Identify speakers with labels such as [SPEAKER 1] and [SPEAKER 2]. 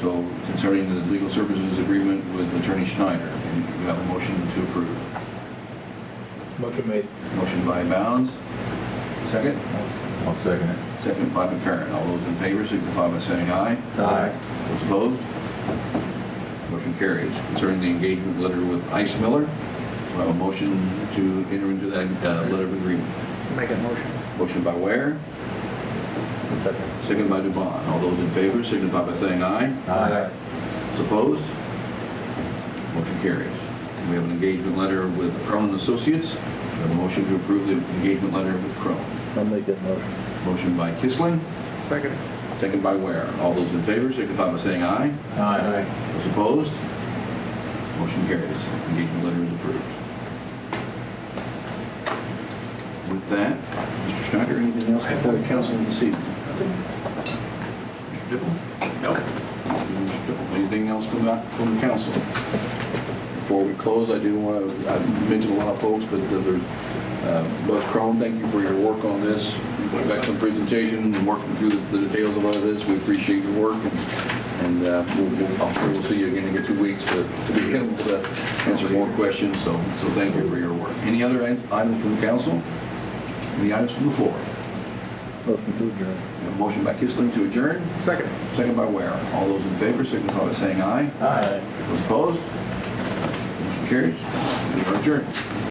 [SPEAKER 1] So concerning the legal services agreement with Attorney Schneider, and we have a motion to approve.
[SPEAKER 2] Motion made.
[SPEAKER 1] Motion by Bounds, second.
[SPEAKER 3] I'll second it.
[SPEAKER 1] Second by McFerrin. All those in favor signify by saying aye.
[SPEAKER 3] Aye.
[SPEAKER 1] Those opposed? Motion carries. Concerning the engagement letter with Ice Miller, we have a motion to enter into that uh, letter of agreement.
[SPEAKER 2] Make a motion.
[SPEAKER 1] Motion by Ware,
[SPEAKER 3] Second.
[SPEAKER 1] second by Dubon. All those in favor signify by saying aye.
[SPEAKER 3] Aye.
[SPEAKER 1] Those Opposed? Motion carries. We have an engagement letter with Crone and Associates. We have a motion to approve the engagement letter with Crone.
[SPEAKER 3] I'll make that motion.
[SPEAKER 1] Motion by Kissling,
[SPEAKER 2] Second.
[SPEAKER 1] second by Ware. All those in favor signify by saying aye.
[SPEAKER 3] Aye.
[SPEAKER 1] Those opposed? Motion carries. Engagement letter is approved. With that, Mr. Schneider, anything else before the council this evening? Mr. Dibble? No. Mr. Dibble, anything else from the, from the council? Before we close, I do want to, I mentioned a lot of folks, but the- the, uh, Buzz Crone, thank you for your work on this. Excellent presentation, and working through the the details of all of this. We appreciate your work, and- and uh, we'll- we'll- I'm sure we'll see you again in two weeks to to be able to answer more questions, so, so thank you for your work. Any other items from the council? Any items from the floor?
[SPEAKER 3] Motion to adjourn.
[SPEAKER 1] A Motion by Kissling to adjourn,
[SPEAKER 2] Second.
[SPEAKER 1] second by Ware. All those in favor signify by saying aye.
[SPEAKER 3] Aye.
[SPEAKER 1] Those opposed? Motion carries. We are adjourned.